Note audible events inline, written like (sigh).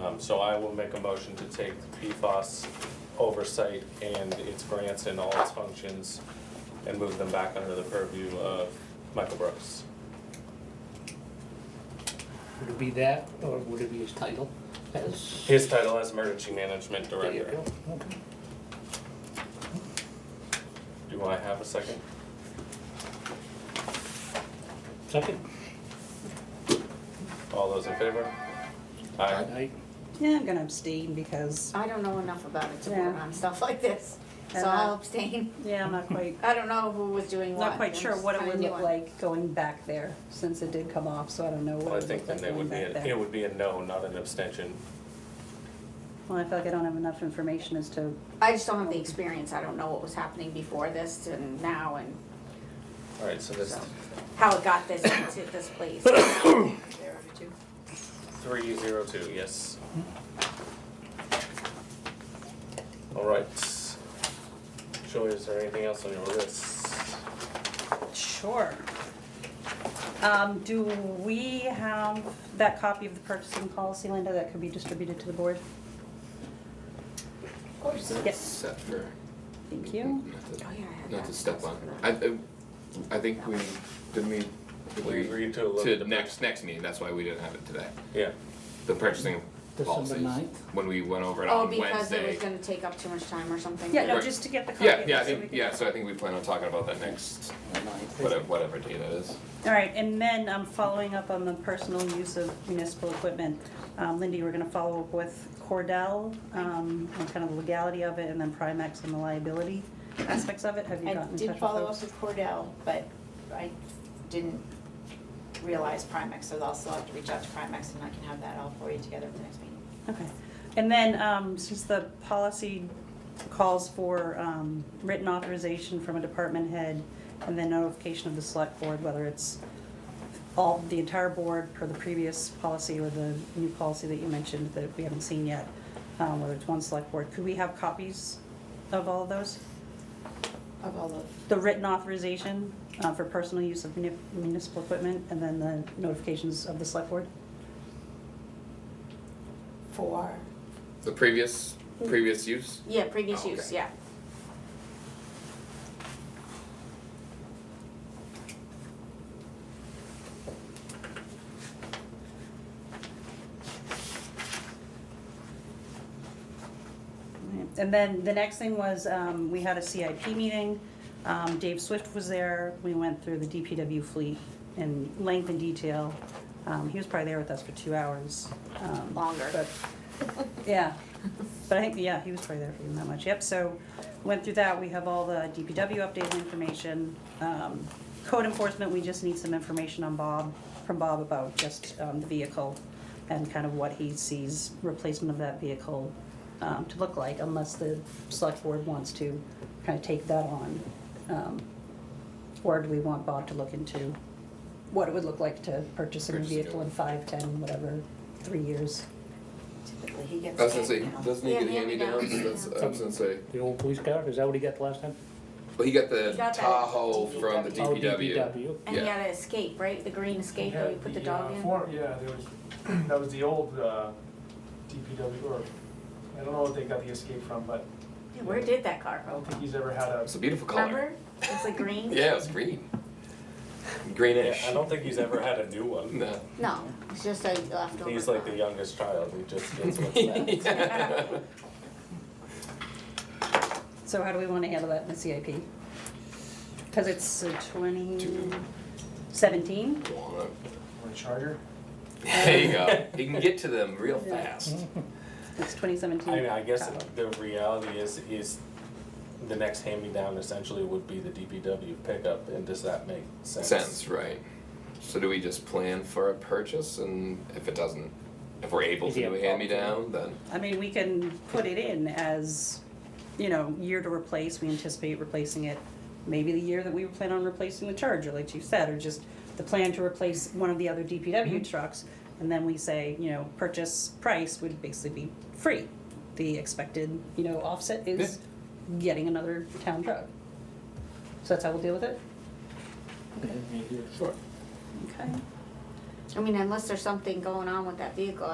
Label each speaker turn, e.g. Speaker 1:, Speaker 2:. Speaker 1: Um, so I will make a motion to take the PFAS oversight and its grants and all its functions and move them back under the purview of Michael Brooks.
Speaker 2: Would it be that, or would it be his title as?
Speaker 1: His title as Emergency Management
Speaker 2: There you
Speaker 1: Director.
Speaker 2: go, okay.
Speaker 1: Do I have a second?
Speaker 2: Second?
Speaker 1: All those in favor? Aye.
Speaker 2: Aye.
Speaker 3: Yeah, I'm gonna abstain because,
Speaker 4: I don't know enough about it to vote
Speaker 3: Yeah.
Speaker 4: on stuff like this, so
Speaker 3: And, uh,
Speaker 4: I'll abstain.
Speaker 3: yeah, I'm not (laughs) quite,
Speaker 4: I don't know who was doing what.
Speaker 3: not quite
Speaker 4: I'm
Speaker 3: sure what it
Speaker 4: kinda
Speaker 3: would
Speaker 4: new
Speaker 3: look
Speaker 4: on-
Speaker 3: like going back there, since it did come off, so I don't know
Speaker 1: Well,
Speaker 3: what
Speaker 1: I
Speaker 3: it
Speaker 1: think
Speaker 3: would look
Speaker 1: then
Speaker 3: like
Speaker 1: they
Speaker 3: going
Speaker 1: would be,
Speaker 3: back
Speaker 1: a- it
Speaker 3: there.
Speaker 1: would be a no, not an abstention.
Speaker 3: Well, I feel like I don't have enough information as to,
Speaker 4: I just don't have the experience, I don't know what was happening before this and now and
Speaker 1: All right, so there's
Speaker 4: so, how it got this into this
Speaker 5: (coughs)
Speaker 4: place. (coughs) There are two.
Speaker 1: three zero two, yes. All right. Joy, is there anything else on your list?
Speaker 6: Sure. Um, do we have that copy of the purchasing policy, Linda, that could be distributed to the board?
Speaker 5: Of course.
Speaker 6: Yes.
Speaker 5: Except for,
Speaker 6: Thank you.
Speaker 5: not to,
Speaker 4: Oh, yeah, I had
Speaker 5: not
Speaker 4: that.
Speaker 5: to step on, I, I- I think we, didn't we, did
Speaker 1: We
Speaker 5: we,
Speaker 1: agreed to look at
Speaker 5: to
Speaker 1: the.
Speaker 5: next, next meeting, that's why we didn't have it today.
Speaker 1: Yeah,
Speaker 5: The purchasing
Speaker 2: December
Speaker 5: policies,
Speaker 2: ninth?
Speaker 5: when we went over it
Speaker 4: Oh,
Speaker 5: on
Speaker 4: because it
Speaker 5: Wednesday.
Speaker 4: was gonna take up too much time or something.
Speaker 6: Yeah, no,
Speaker 5: Right.
Speaker 6: just to get the copy.
Speaker 5: Yeah, yeah, I
Speaker 6: so we
Speaker 5: think,
Speaker 6: can-
Speaker 5: yeah, so I think we plan on talking about that next, whatever, whatever day that is.
Speaker 6: All right, and then um following up on the personal use of municipal equipment. Um, Lindy, we're gonna follow up with Cordell, um, on kind of the legality of it, and then Primex and the liability aspects of it. Have you
Speaker 7: I
Speaker 6: gotten in touch with
Speaker 7: did follow up
Speaker 6: those?
Speaker 7: with Cordell, but I didn't realize Primex, so I'll still have to reach out to Primex and I can have that all for you together at the next meeting.
Speaker 6: Okay, and then, um, since the policy calls for, um, written authorization from a department head and then notification of the select board, whether it's all, the entire board per the previous policy or the new policy that you mentioned that we haven't seen yet, um, whether it's one select board, could we have copies of all of those?
Speaker 7: Of all of.
Speaker 6: The written authorization, uh, for personal use of muni- municipal equipment and then the notifications of the select board?
Speaker 7: Four.
Speaker 5: The previous, previous use,
Speaker 4: Yeah, previous
Speaker 5: Oh, okay.
Speaker 4: use, yeah.
Speaker 6: And then the next thing was, um, we had a CIP meeting. Um, Dave Swift was there. We went through the DPW fleet in length and detail. Um, he was probably there with us for two hours. um,
Speaker 4: Longer.
Speaker 6: but- Yeah, but I think, yeah, he was probably there for even that much. Yep, so went through that. We have all the DPW updated information. Um, Code enforcement, we just need some information on Bob, from Bob about just, um, the vehicle and kind of what he sees replacement of that vehicle um, to look like unless the select board wants to kind of take that on. Um, Or do we want Bob to look into what it would look like to purchase a new
Speaker 5: Purchase a new
Speaker 6: vehicle in
Speaker 5: one.
Speaker 6: five, ten, whatever, three years?
Speaker 7: Typically, he gets.
Speaker 5: I was gonna say,
Speaker 7: paid now.
Speaker 5: doesn't he
Speaker 4: Yeah,
Speaker 5: get handy downs,
Speaker 4: hand-me-downs,
Speaker 5: that's, I was gonna say,
Speaker 2: The old police car, is that what he got the last time?
Speaker 5: but he got the
Speaker 4: He got that
Speaker 5: Tahoe from the
Speaker 7: DPW.
Speaker 2: Oh,
Speaker 5: DPW.
Speaker 2: DPW.
Speaker 4: And you
Speaker 5: Yeah.
Speaker 4: gotta escape, right? The green escape
Speaker 8: Yeah,
Speaker 4: that we put the dog
Speaker 8: uh,
Speaker 4: in?
Speaker 8: form- yeah, there was, that was (clears throat) the old uh, DPW, or, I don't know what they got the escape from, but
Speaker 4: Yeah, Where did that car
Speaker 8: I
Speaker 4: go?
Speaker 8: don't think he's ever had a,
Speaker 5: It's a beautiful color.
Speaker 4: Remember? It's like green?
Speaker 5: Yeah, it was green.
Speaker 1: yeah,
Speaker 5: Greenish.
Speaker 1: I don't think he's ever had a new one.
Speaker 5: (laughs) No.
Speaker 4: No, it's just a leftover.
Speaker 1: He's like
Speaker 4: car.
Speaker 1: the youngest child, he
Speaker 5: (laughs)
Speaker 1: just gets (laughs) what's
Speaker 6: So how do we want to handle that in the CIP? Because it's twenty seventeen?
Speaker 8: or a charger.
Speaker 5: There you go. You can get to them real fast.
Speaker 6: It's twenty seventeen.
Speaker 1: I mean, I guess the reality is, is the next hand-me-down essentially would be the DPW pickup, and does that make sense?
Speaker 5: Sense, right. So do we just plan for a purchase and if it doesn't, if we're able
Speaker 2: Is
Speaker 5: to
Speaker 2: he
Speaker 5: do
Speaker 2: a
Speaker 5: a hand-me-down, then?
Speaker 6: I mean, we can put it in as, you know, year to replace, we anticipate replacing it. Maybe the year that we plan on replacing the Charger, like you said, or just the plan to replace one of the other DPW trucks. And then we say, you know, purchase price would basically be free. The expected, you know, offset is getting another town truck. So that's how we'll deal with it?
Speaker 2: Yeah, yeah, yeah.
Speaker 5: Sure.
Speaker 6: Okay.
Speaker 4: I mean, unless there's something going on with that vehicle,